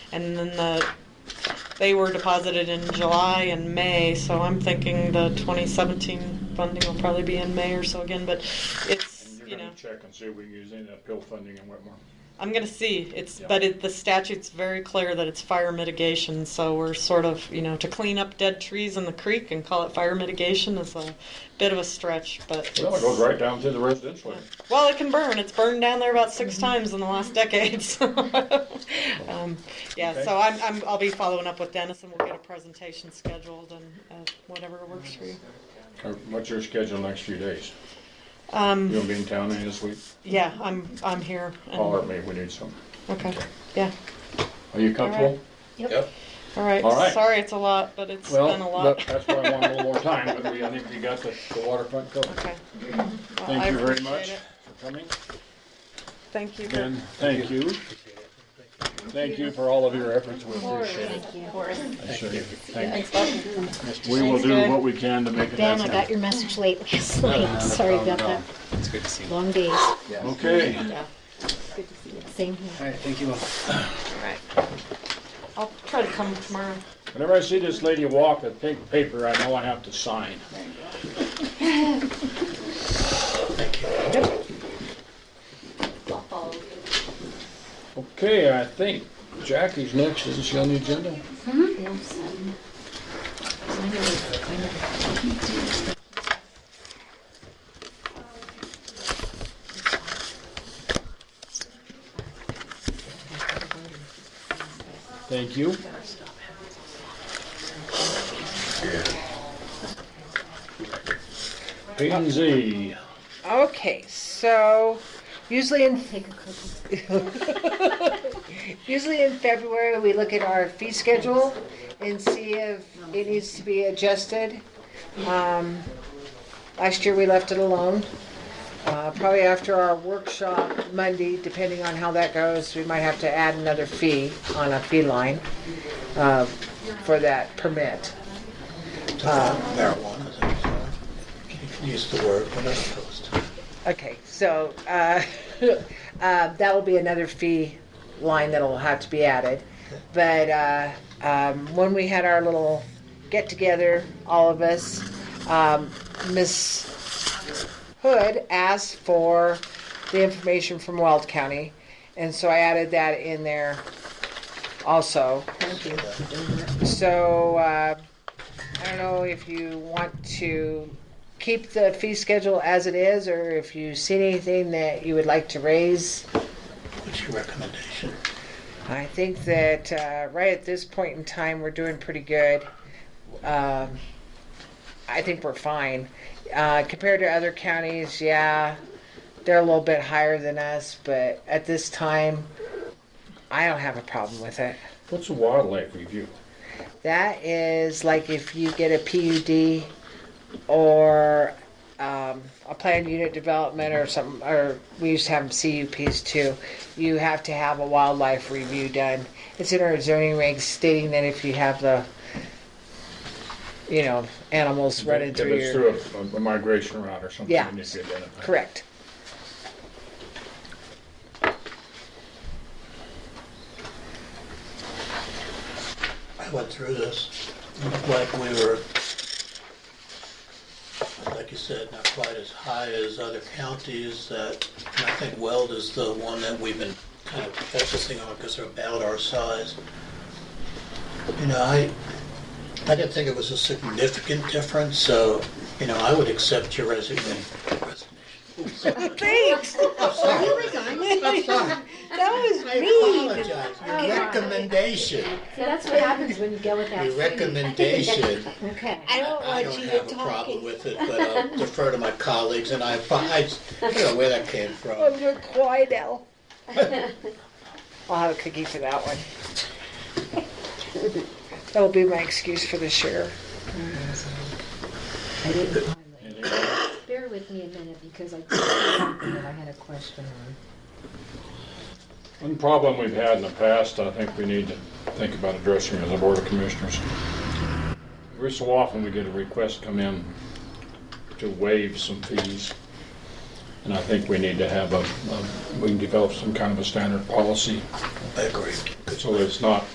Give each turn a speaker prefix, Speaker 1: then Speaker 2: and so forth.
Speaker 1: and then the, they were deposited in July and May, so I'm thinking the 2017 funding will probably be in May or so again, but
Speaker 2: And
Speaker 1: it's,
Speaker 2: you're
Speaker 1: you know,
Speaker 2: gonna check and see if we can use any of that pill funding in Whitmore.
Speaker 1: I'm gonna see, it's,
Speaker 2: Yeah.
Speaker 1: but it, the statute's very clear that it's fire mitigation, so we're sort of, you know, to clean up dead trees in the creek and call it fire mitigation is a bit of a stretch, but
Speaker 2: Well, it
Speaker 1: it's-
Speaker 2: goes right down through the residential. area.
Speaker 1: Well, it can burn. It's burned down there about
Speaker 2: Mm-hmm.
Speaker 1: 6 times in the last decade. So, um, yeah,
Speaker 2: Okay.
Speaker 1: so I'm, I'm, I'll be following up with Dennis, and we'll get a presentation scheduled and uh, whatever works for you.
Speaker 2: Uh, What's your schedule next few days? You
Speaker 1: Um,
Speaker 2: gonna be in town any this week?
Speaker 1: yeah, I'm, I'm here. and-
Speaker 2: Holler at me if we need something.
Speaker 1: Okay. Yeah.
Speaker 2: Are you comfortable?
Speaker 3: Yep.
Speaker 1: All right.
Speaker 2: All right.
Speaker 1: Sorry, it's a lot, but it's
Speaker 2: Well,
Speaker 1: been a lot.
Speaker 2: that- that's why I want a little more time, but we, I think we got the, the waterfront covered.
Speaker 1: okay. Well, I
Speaker 2: Thank you very
Speaker 1: appreciate
Speaker 2: much
Speaker 1: it.
Speaker 2: for coming.
Speaker 1: Thank you.
Speaker 2: Ben, thank you. Thank you for all of your efforts. We appreciate it.
Speaker 4: Of course.
Speaker 2: I sure do. Thank
Speaker 4: Ben,
Speaker 2: you. We will do
Speaker 1: Thanks,
Speaker 2: what we can to make it
Speaker 4: I got
Speaker 2: happen.
Speaker 4: your message late last night. Sorry about that.
Speaker 3: It's good to see you. All
Speaker 4: Long days.
Speaker 2: Okay.
Speaker 4: Same here.
Speaker 3: right, thank you all.
Speaker 1: All right. I'll try to come tomorrow.
Speaker 2: Whenever I see this lady walk with pink paper, I know I have to sign.
Speaker 1: I'll follow you.
Speaker 2: Okay, I think Jackie's next. Isn't she on the agenda? Thank you. P and Z.
Speaker 5: Okay, so usually in
Speaker 4: Take a cookie.
Speaker 5: usually in February we look at our fee schedule and see if it needs to be adjusted. Um, last year we left it alone. Uh, probably after our workshop Monday, depending on how that goes, we might have to add another fee on a fee line uh, for that permit.
Speaker 6: marijuana. You can use the word, but I'm opposed to it.
Speaker 5: Okay, so uh, uh, that will be another fee line that'll have to be added. But uh, um, when we had our little get together, all of us, um, Miss Hood asked for the information from Weld County, and so I added that in there also.
Speaker 4: Thank you for doing that.
Speaker 5: So, uh, I don't know if you want to keep the fee schedule as it is, or if you see anything that you would like to raise.
Speaker 6: What's your recommendation?
Speaker 5: I think that, uh, right at this point in time, we're doing pretty good. Um, I think we're fine. Uh, compared to other counties, yeah, they're a little bit higher than us, but at this time, I don't have a problem with it.
Speaker 2: What's a wildlife review?
Speaker 5: That is like if you get a PUD or um, a planned unit development or something, or we used to have CUPs too. You have to have a wildlife review done. It's in our zoning regs stating that if you have the, you know, animals running
Speaker 2: If
Speaker 5: through
Speaker 2: it's
Speaker 5: your.
Speaker 2: through a- a migration route or something.
Speaker 5: Yeah.
Speaker 2: you need to identify.
Speaker 5: Correct.
Speaker 6: I went through this, it looked like we were, like you said, not quite as high as other counties that, and I think Weld is the one that we've been kind of focusing on because they're about our size. You know, I, I didn't think it was a significant difference, so, you know, I would accept your resignation. Resignation.
Speaker 5: Thanks. That was
Speaker 6: I apologize, your recommendation.
Speaker 4: See, that's what happens when you go without.
Speaker 6: Your
Speaker 4: food.
Speaker 6: recommendation,
Speaker 4: Okay.
Speaker 6: I I don't have a problem with it, but I'll defer to my colleagues, and I, I don't know where that came
Speaker 5: I'm
Speaker 6: from.
Speaker 5: your Quidel. I'll have a cookie for that one. That'll be my excuse for this year.
Speaker 4: I didn't mind that.
Speaker 2: Anything else?
Speaker 4: Bear with me a minute because I couldn't remember what I had a question on.
Speaker 2: One problem we've had in the past, I think we need to think about addressing as a Board of Commissioners. Every so often, we get a request come in to waive some fees. And I think we need to have a, a- we can develop some kind of a standard policy
Speaker 6: I agree.
Speaker 2: so that it's not